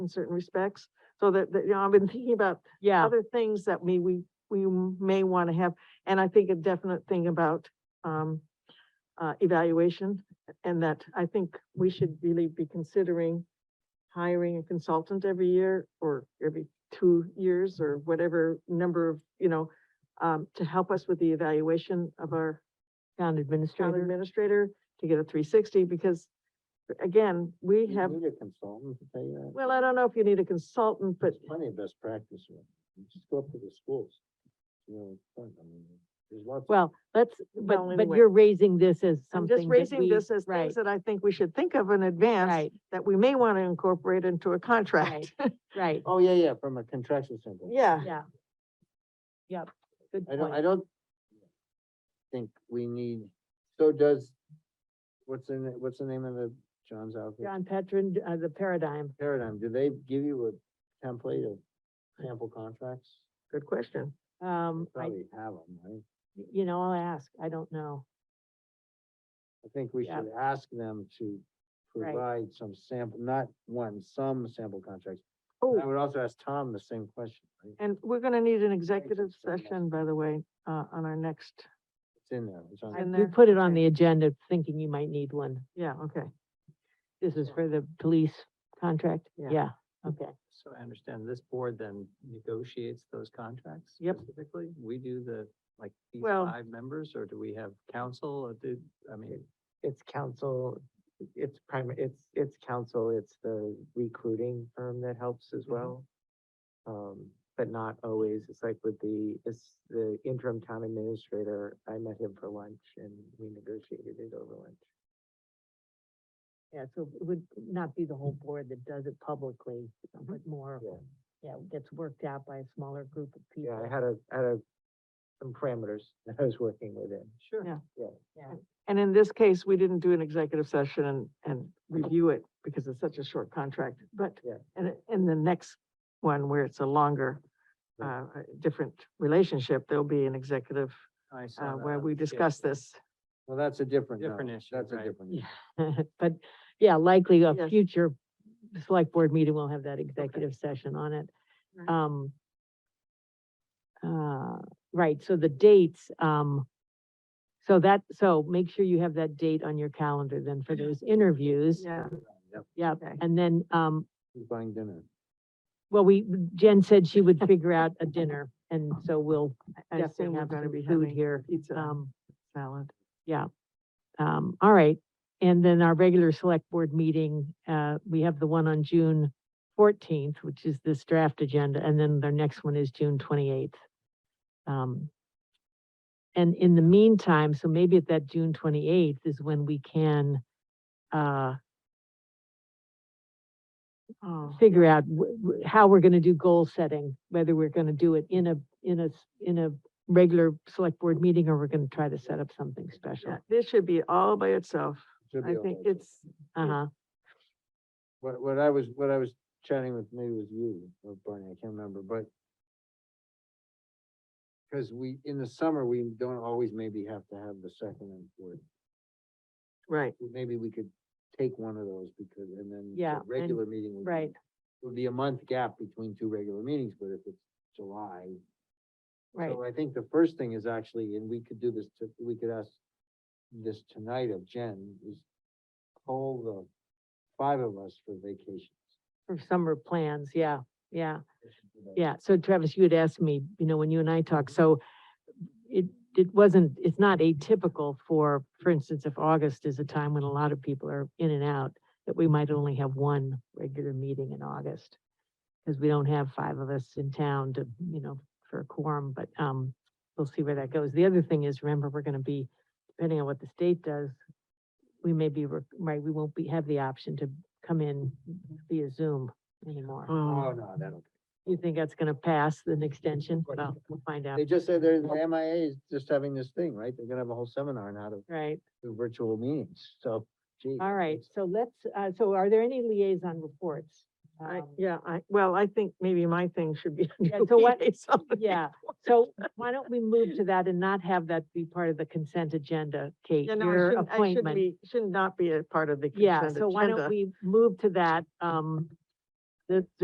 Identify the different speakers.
Speaker 1: in certain respects. So that, that, you know, I've been thinking about
Speaker 2: Yeah,
Speaker 1: other things that we, we, we may want to have. And I think a definite thing about, um, uh, evaluation and that I think we should really be considering hiring a consultant every year or every two years or whatever number of, you know, um, to help us with the evaluation of our
Speaker 2: town
Speaker 1: town
Speaker 2: administrator.
Speaker 1: administrator to get a three sixty because again, we
Speaker 3: You
Speaker 1: have,
Speaker 3: Need a consultant to tell you that.
Speaker 1: well, I don't know if you need a consultant, but
Speaker 3: There's Plenty of best practice. here. You Just go up to the schools. You know, it's fun. I mean, there's lots. of-
Speaker 2: Well, let's,
Speaker 1: Well,
Speaker 2: but, but
Speaker 1: anyway.
Speaker 2: you're raising this as
Speaker 1: I'm
Speaker 2: something
Speaker 1: just
Speaker 2: that
Speaker 1: raising
Speaker 2: we-
Speaker 1: this as
Speaker 2: right,
Speaker 1: things that I think we should think of in advance
Speaker 2: Right,
Speaker 1: that we may want to incorporate into a contract.
Speaker 2: right,
Speaker 3: Oh, yeah, yeah, from a contraction standpoint.
Speaker 1: Yeah.
Speaker 2: yeah. Yep, good
Speaker 3: I don't, I
Speaker 2: point.
Speaker 3: don't think we need, so does, what's the, na- what's the name of the John's outfit?
Speaker 2: John Petron, uh, the paradigm.
Speaker 3: Paradigm, do they give you a template of sample contracts?
Speaker 1: Good question.
Speaker 2: Um, I,
Speaker 3: Probably have them, right?
Speaker 2: you know, I'll ask, I don't know.
Speaker 3: I think we
Speaker 2: Yeah.
Speaker 3: should ask them to
Speaker 2: Right.
Speaker 3: provide some sample, not one, some sample contracts. I
Speaker 1: Oh,
Speaker 3: would also ask Tom the same question, right?
Speaker 1: and we're going to need an executive
Speaker 3: very much.
Speaker 1: session, by the way, uh, on our next,
Speaker 3: It's in there. It's on
Speaker 2: I-
Speaker 1: in
Speaker 2: We
Speaker 1: there?
Speaker 2: put it on
Speaker 1: Okay.
Speaker 2: the agenda thinking you might need one.
Speaker 1: yeah, okay.
Speaker 2: This is for the police contract,
Speaker 1: Yeah.
Speaker 2: yeah, okay.
Speaker 4: So I understand this board then negotiates those contracts?
Speaker 1: Yep.
Speaker 4: Specifically, we do the, like, these
Speaker 1: Well-
Speaker 4: five members, or do we have council, or do, I mean,
Speaker 5: it's council, it's prime, it's, it's council, it's the recruiting firm that helps as
Speaker 4: Mhm.
Speaker 5: well. Um, but not always, it's like with the, it's the interim town administrator, I met him for lunch and we negotiated it over lunch.
Speaker 2: Yeah, so it would not be the whole board that does it publicly, but more,
Speaker 5: Yeah.
Speaker 2: yeah, it gets worked out by a smaller group of people.
Speaker 5: Yeah, I had a, had a, some parameters that I was working within.
Speaker 4: sure.
Speaker 1: Yeah.
Speaker 2: Yeah.
Speaker 1: And in this case, we didn't do an executive session and, and review it because it's such a short contract, but
Speaker 5: Yeah.
Speaker 1: and it- in the next one where it's a longer, uh, a different relationship, there'll be an executive,
Speaker 4: I saw
Speaker 1: uh,
Speaker 4: that
Speaker 1: where
Speaker 4: on
Speaker 1: we
Speaker 4: the schedule.
Speaker 1: discuss this.
Speaker 3: Well, that's a different.
Speaker 4: Different
Speaker 3: note.
Speaker 4: issue,
Speaker 3: That's a
Speaker 4: right.
Speaker 3: different.
Speaker 2: Yeah.
Speaker 3: issue.
Speaker 2: But, yeah, likely a
Speaker 1: Yes.
Speaker 2: future select board meeting will have that executive session on it.
Speaker 1: Right.
Speaker 2: Um. Uh, right, so the dates, um. So that, so make sure you have that date on your calendar then for those interviews.
Speaker 1: Yeah.
Speaker 3: Yep,
Speaker 2: Yep,
Speaker 1: Okay.
Speaker 2: and then, um,
Speaker 3: who's buying dinner?
Speaker 2: well, we, Jen said she would figure out a dinner, and so we'll
Speaker 1: I assume
Speaker 2: definitely
Speaker 1: we're
Speaker 2: have
Speaker 1: gonna be
Speaker 2: some food
Speaker 1: having
Speaker 2: here.
Speaker 1: pizza
Speaker 2: Um,
Speaker 1: salad.
Speaker 2: Um, all right, and then our regular select board meeting, uh, we have the one on June fourteenth, which is this draft agenda, and then their next one is June twenty-eighth. Um, and in the meantime, so maybe at that June twenty-eighth is when we can, uh,
Speaker 1: Oh,
Speaker 2: figure out w- w- how we're gonna do goal setting, whether we're gonna do it in a, in a, s- in a regular select board meeting, or we're gonna try to set up something special.
Speaker 1: yeah, This should be all by itself.
Speaker 3: Should
Speaker 1: I
Speaker 3: be all
Speaker 1: think
Speaker 3: right.
Speaker 1: it's,
Speaker 2: Uh-huh,
Speaker 3: What, what I was, what I was chatting with, maybe it was you or Barney, I can't remember, but because we, in the summer, we don't always maybe have to have the second and fourth.
Speaker 1: right,
Speaker 3: Maybe we could take one of those because, and then
Speaker 2: Yeah,
Speaker 3: the
Speaker 2: and-
Speaker 3: regular meeting. would be-
Speaker 2: right,
Speaker 3: Would be a month gap between two regular meetings, but if it's July.
Speaker 2: right.
Speaker 3: So I think the first thing is actually, and we could do this, to- we could ask this tonight of Jen, is call the five of us for vacations.
Speaker 2: For summer plans, yeah, yeah,
Speaker 3: We should do that.
Speaker 2: yeah. So Travis, you had asked me, you know, when you and I talked, so it, it wasn't, it's not atypical for, for instance, if August is a time when a lot of people are in and out, that we might only have one regular meeting in August. Because we don't have five of us in town to, you know, for a quorum, but, um, we'll see where that goes. The other thing is, remember, we're gonna be, depending on what the state does, we may be, re- right, we won't be, have the option to come in via Zoom anymore.
Speaker 3: Oh,
Speaker 1: oh,
Speaker 3: no, that'll,
Speaker 2: You think that's gonna pass, an extension?
Speaker 3: course.
Speaker 2: Well, we'll find out,
Speaker 3: they just said they're, the MIA is just having this thing, right? They're gonna have a whole seminar on how to
Speaker 2: right?
Speaker 3: do virtual meetings, so, gee.
Speaker 2: All right,
Speaker 3: it's-
Speaker 2: so let's, uh, so are there any liaison reports?
Speaker 1: I,
Speaker 2: Um,
Speaker 1: yeah, I, well, I think maybe my thing should be.
Speaker 2: Yeah, so what-
Speaker 1: Yeah.
Speaker 2: Yeah, so why don't we move to that and not have that be part of the consent agenda, Kate,
Speaker 1: You know, I
Speaker 2: your
Speaker 1: shouldn't, I should
Speaker 2: appointment?
Speaker 1: be, should not be a part of the
Speaker 2: Yeah,
Speaker 1: consent
Speaker 2: so why don't
Speaker 1: agenda.
Speaker 2: we move to that, um, This,